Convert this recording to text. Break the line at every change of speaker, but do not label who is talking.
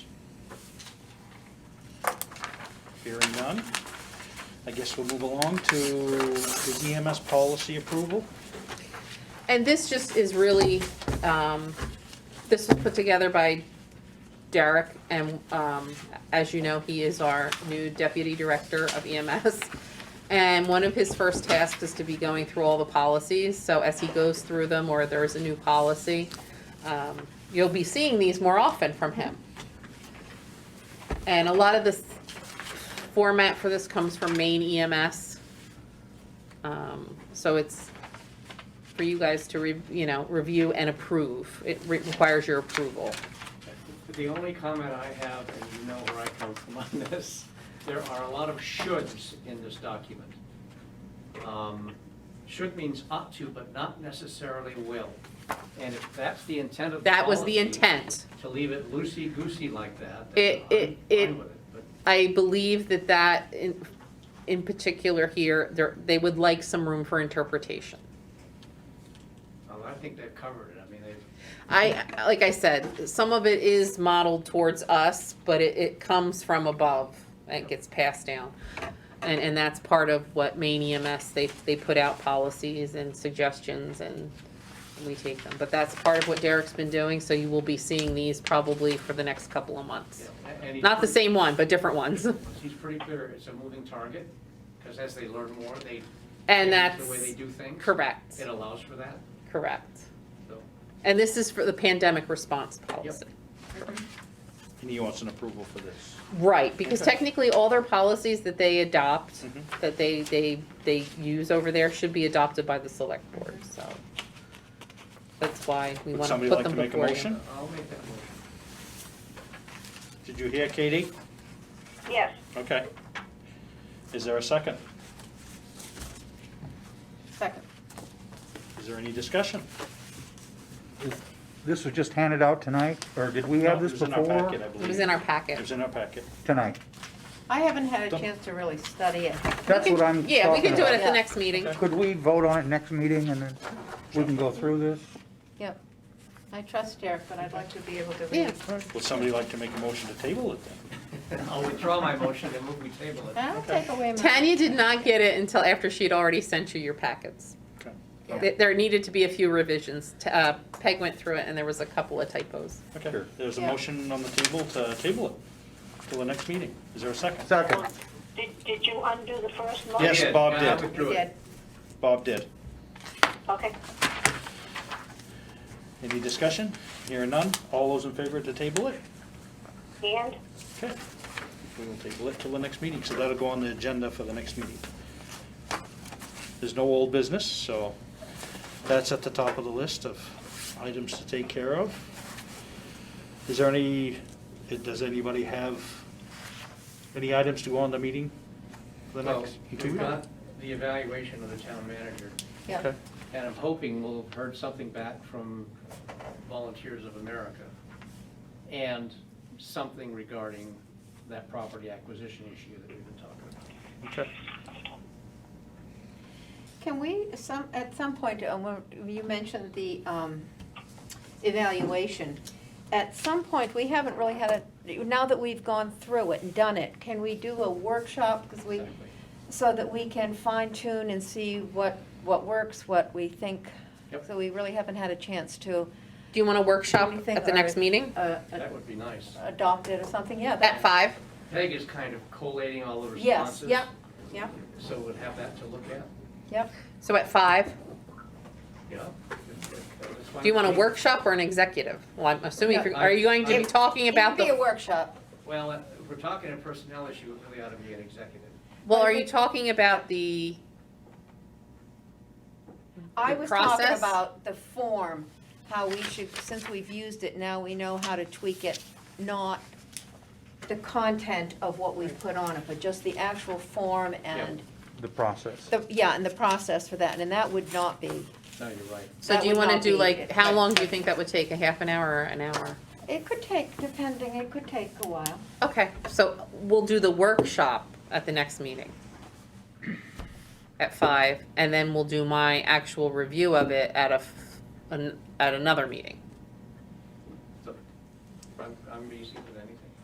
Hearing none. I guess we'll move along to the EMS policy approval.
And this just is really, um, this was put together by Derek, and, um, as you know, he is our new deputy director of EMS. And one of his first tasks is to be going through all the policies, so as he goes through them, or there is a new policy, um, you'll be seeing these more often from him. And a lot of this format for this comes from Maine EMS. Um, so it's, for you guys to, re- you know, review and approve. It re- requires your approval.
The only comment I have, and you know where I come from on this, there are a lot of shoulds in this document. Um, Should means ought to, but not necessarily will. And if that's the intent of the
That was the
policy,
intent.
To leave it loosey-goosey like that, then
It-
I'm
it-
fine
it-
with it. But
I believe that that, in, in particular here, there, they would like some room for interpretation.
um, I think they've covered it. I mean, they've,
I, like I said, some of it is modeled towards us, but it, it comes from above and it gets passed down. And, and that's part of what Maine EMS, they, they put out policies and suggestions and we take them. But that's part of what Derek's been doing, so you will be seeing these probably for the next couple of months.
yeah, and he's
Not the
pretty-
same one, but different ones.
He's pretty clear, it's a moving target, because as they learn more, they
And
change
that's
the way they do things.
correct,
It allows for that,
correct.
so.
And this is for the pandemic response policy.
And you want an approval for this?
Right, because
Okay.
technically all their policies that they adopt,
Mhm.
that they, they, they use over there should be adopted by the select board, so. That's why we
Would
want to
somebody
put
like to
them
make a
before you.
motion?
I'll make that motion.
Did you hear, Katie?
Yes,
Okay. Is there a second?
Second.
Is there any discussion?
This was just handed out tonight, or did we have
No,
this
It was in our
before?
packet, I believe.
It was in our
It was
packet.
in our packet.
Tonight.
I haven't had a
Don't-
chance to really study it.
That's
We
what
can-
I'm
Yeah, we
talking
can do it at
about.
the next meeting.
Okay.
Could we vote on it next meeting and then we can go through this?
Yep. I trust Derek, but I'd like to be able to read.
Yeah,
Would somebody like to make a motion to table it then?
I'll withdraw my motion and move we table it.
That'll take away my.
Tanya did not get it until after she'd already sent you your packets.
Okay.
Yeah.
Th- There needed to be a few revisions. T- uh, Peg went through it and there was a couple of typos.
Okay, there's a
Yeah.
motion on the table to table it till the next meeting. Is there a second?
Second.
Did, did you undo the first motion?
Yes,
Yeah,
Bob
Uh, I
did.
You
withdrew it.
did.
Bob did.
Okay.
Any discussion? Hearing none. All those in favor to table it?
And
Okay. We will table it till the next meeting, so that'll go on the agenda for the next meeting. There's no old business, so that's at the top of the list of items to take care of. Is there any, does anybody have any items to go on the meeting for the
Well,
next? two
We've
weeks?
got the evaluation of the town manager,
Yeah.
Okay.
and I'm hoping we'll have heard something back from Volunteers of America and something regarding that property acquisition issue that we've been talking about.
Okay.
Can we, some, at some point, um, when you mentioned the um, evaluation. At some point, we haven't really had a, now that we've gone through it and done it, can we do a workshop? Because we,
Exactly.
so that we can fine tune and see what, what works, what we think.
Yep.
So we really haven't had a chance to.
Do you want to workshop
do you think
at the
are
next
it-
meeting?
uh, uh,
That would be nice.
Adopt it or something, yeah. that-
At five?
Peg is kind of collating all the
Yes,
responses.
yep, yep,
So we'd have that to look at,
yep.
So at five?
you know? That's fine.
Do you want a workshop or an executive? Well, I'm assuming, if you're- are you going to be talking about
It could be a
the,
workshop.
Well, uh, if we're talking a personnel issue, it really ought to be an executive.
well, are you talking about the,
I
The
was talking
process?
about the form, how we should, since we've used it, now we know how to tweak it, not the content of what we've put on it, but just the actual form and,
The process.
the yeah, and the process for that, and that would not be.
No, you're right.
so
That
do you
would
want to
not
do
be
like,
it.
how long do you think that would take? A half an hour or an hour?
It could take, depending, it could take a while.
Okay, so we'll do the workshop at the next meeting at five, and then we'll do my actual review of it at a, f- an- at another meeting.
So, I'm, I'm easy for